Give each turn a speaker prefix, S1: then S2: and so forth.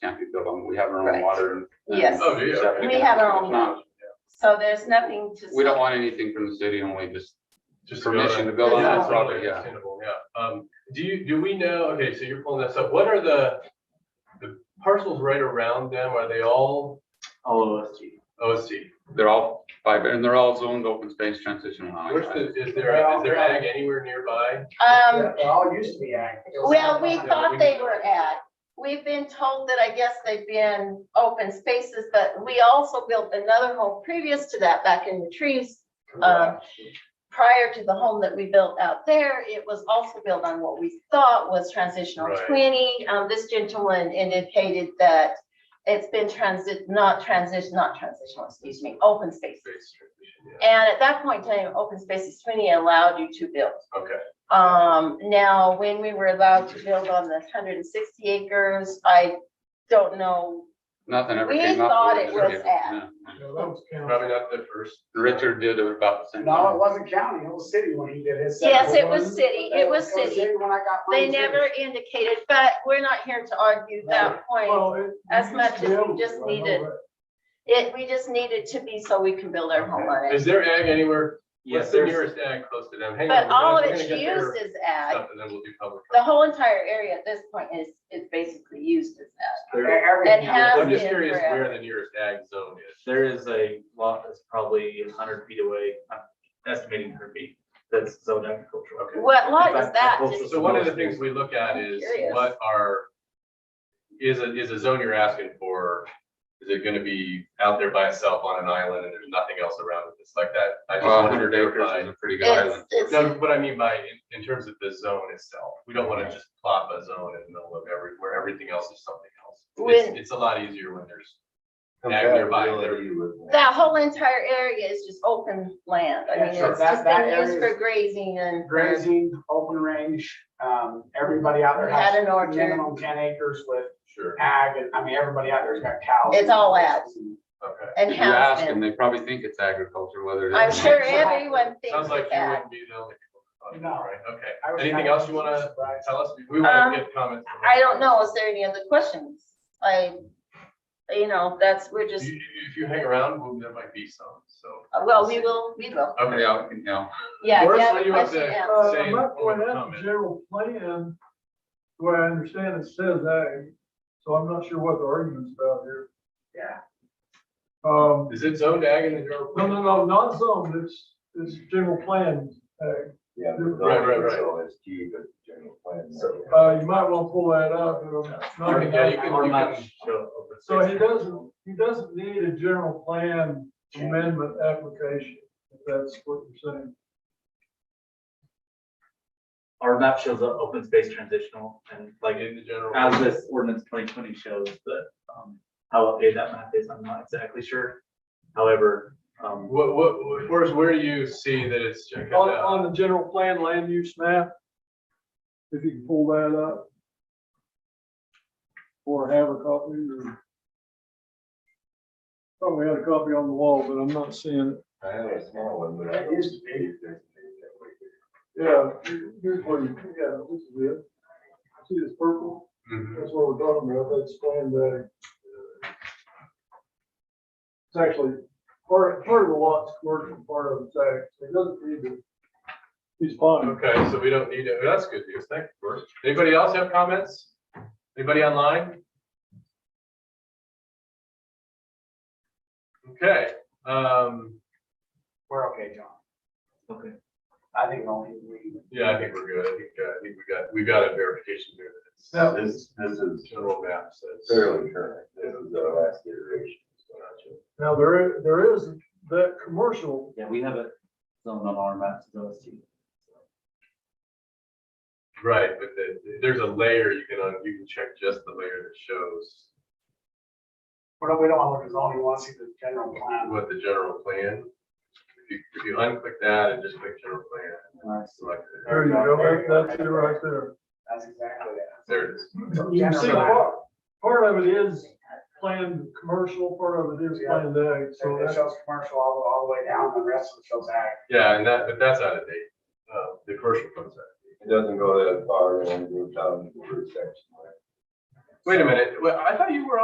S1: we build on, we have our own
S2: Right.
S1: water. and-
S2: Yes.
S3: Oh, do you?
S1: septic
S2: We have our
S1: and
S2: own.
S1: whatnot.
S2: So there's nothing to.
S1: We don't want anything from the city, only just,
S3: Just
S1: Permission to build
S2: on
S3: Yeah,
S2: that
S3: it's
S1: property,
S3: totally
S1: yeah.
S3: understandable, Yeah, um, do you, do we know, okay, so you're pulling this up, what are the, the parcels right around them, are they all
S4: all OSG.
S3: OSG?
S1: they're all five, and they're all zoned open space transition
S3: Where's
S1: allowing.
S3: the, is there, is there ag anywhere nearby?
S2: Um,
S4: They all used to be ag.
S2: well, we
S3: Yeah, we
S2: thought they
S3: need-
S2: were at, we've been told that I guess they've been open spaces, but we also built another home previous to that back in the trees. Um, prior to the home that we built out there, it was also built on what we thought was transitional
S3: Right.
S2: twenty. Um, this gentleman indicated that it's been transit, not transition, not transitional, excuse me, open space.
S3: Space transition,
S2: And at that point in time, open spaces twenty allowed you to build.
S3: yeah. Okay,
S2: Um, now, when we were allowed to build on the hundred and sixty acres, I don't know.
S1: Nothing ever
S2: We
S1: came up.
S2: thought
S1: with
S2: it
S1: the city.
S2: was ag.
S1: Yeah.
S3: probably not the first.
S1: Richard did it about the same.
S4: No, it
S1: time.
S4: wasn't county, it was city when he did his.
S2: Yes, it was
S4: separate one.
S2: city, it was city.
S4: When I got.
S2: They
S4: mine, too.
S2: never indicated, but we're not here to argue that point.
S5: Well, it-
S2: as
S5: you
S2: much as we
S5: build
S2: just
S5: it, I
S2: need
S5: know
S2: it.
S5: that.
S2: It, we just need it to be so we can build our home on
S3: Is
S2: it.
S3: there ag anywhere?
S4: Yes,
S3: What's the
S4: there's-
S3: nearest ag close to them? Hang on,
S2: But
S3: we're gonna-
S2: all of
S3: we're gonna
S2: it's
S3: get their
S2: used as ag.
S3: Stuff and then we'll do public.
S2: The whole entire area at this point is, is basically used as ag.
S6: There,
S2: That
S4: Everything.
S2: has
S3: I'm just
S2: been
S3: curious
S2: forever.
S3: where the nearest ag zone is.
S6: there is a lot that's probably hundred feet away, I'm estimating hundred feet, that's zoned agricultural.
S3: Okay.
S2: What lot
S6: In
S2: is
S6: fact,
S2: that?
S6: that's
S2: Just-
S6: also
S3: So one of the things we look at is
S2: Curious.
S3: what are, is a, is a zone you're asking for, is it gonna be out there by itself on an island and there's nothing else around it? It's like that. I just
S1: Well,
S3: wanted to
S1: hundred acres is
S3: clarify.
S1: a pretty good
S2: It's,
S1: island.
S2: it's,
S3: No, what I mean by, in, in terms of the zone itself, we don't wanna just plop a zone in the middle of every, where everything else is something else.
S2: When-
S3: It's, it's a lot easier when there's ag nearby.
S2: that whole entire area is just open land. I
S4: Yeah,
S2: mean,
S4: sure.
S2: it's
S4: That-
S2: just
S4: that
S2: been used
S4: area
S2: for
S4: is-
S2: grazing and.
S4: Grazing, open range, um, everybody out there
S2: We had
S4: has
S2: an orchard.
S4: minimum ten acres with
S3: Sure,
S4: ag, and I mean, everybody out there's got cows.
S2: It's all ag.
S3: okay.
S2: And
S1: If you ask
S2: house
S1: them,
S2: them.
S1: they probably think it's agriculture, whether it is.
S2: I'm
S1: or not.
S2: sure everyone thinks
S3: Sounds like you
S2: that.
S3: wouldn't be the only people.
S4: No.
S3: Right, Okay.
S4: I was
S3: Anything
S4: kinda
S3: else you wanna
S4: surprised.
S3: Tell us, we wanna
S2: Um,
S3: get comments. from
S2: I don't know.
S3: everyone.
S2: Is there any other questions? I, you know, that's, we're just,
S3: You- you- If you hang around, well, there might be some, so.
S2: well, we will, we will.
S3: Okay,
S1: Yeah, yeah.
S2: Yeah.
S3: Doris,
S2: yeah,
S3: what
S2: the
S3: do you have
S2: question
S3: to-
S2: asked.
S5: Uh,
S3: Say in
S5: my
S3: form
S5: point
S3: of
S5: out, the
S3: comment.
S5: general plan, where I understand it says ag, so I'm not sure what the argument's about here.
S4: Yeah.
S5: Um,
S3: Is it zoned ag in the general?
S5: no, no, no, not zone, it's, it's general plan ag.
S7: Yeah, the
S3: Right, right, right.
S7: residential is key, but general plan.
S4: So-
S5: Uh, you might want to pull that up. it'll-
S3: Okay, yeah, you can-
S6: Or
S3: you
S6: not
S3: can-
S6: show open
S5: So
S6: space.
S5: he doesn't, he doesn't need a general plan amendment application, if that's what you're saying.
S6: Our map shows the open space transitional and
S3: Like
S6: like
S3: in the general?
S6: as this ordinance twenty twenty shows, but um how updated that map is, I'm not exactly sure. However, um
S3: What, what, where's, where do you see that it's? checked
S5: On,
S3: out?
S5: on the general plan land use map, if you can pull that up. Or have a copy or. Thought we had a copy on the wall, but I'm not seeing it.
S7: I have a small one, but I
S4: It
S7: don't
S4: used
S7: see
S4: to be.
S7: it that
S5: Yeah, here's where you, yeah, this is it. See this purple?
S3: Mhm.
S5: That's what we're talking about, that's planned ag. It's actually, part, part of the lot's commercial, part of it's ag, so it doesn't need to. He's fine.
S3: Okay, so we don't need it. That's good news. Thank you. Doris. Anybody else have comments? Anybody online? Okay, um,
S4: We're okay, John.
S6: okay.
S4: I think only we.
S3: yeah, I think we're good. I think, uh, I think we got, we got a verification here. that it's-
S5: Now,
S7: way. This, this is
S3: General map says.
S7: fairly current. This is the last iteration.
S5: Now, there, i- there is that commercial,
S6: Yeah, we have it zoned on our maps, those two.
S3: Right, but the- there's a layer you can, un- you can check just the layer that shows
S4: We don't, we don't want to look at zoning, we want to see the general plan.
S3: what the general plan. If you, if you unclick that and just click general plan,
S6: Nice.
S3: select it.
S5: there you go, that's it right there.
S4: That's exactly
S3: There it is.
S4: it.
S5: You see,
S4: General plan.
S5: part, part of it is planned commercial, part of it is planned ag, so
S4: So it
S5: that's.
S4: shows commercial all, all the way down, the rest of it shows ag.
S3: Yeah, and that, but that's out of date. Uh, the commercial comes out.
S7: It doesn't go that far and we're down to the first section.
S3: Wait a minute, well, I thought you were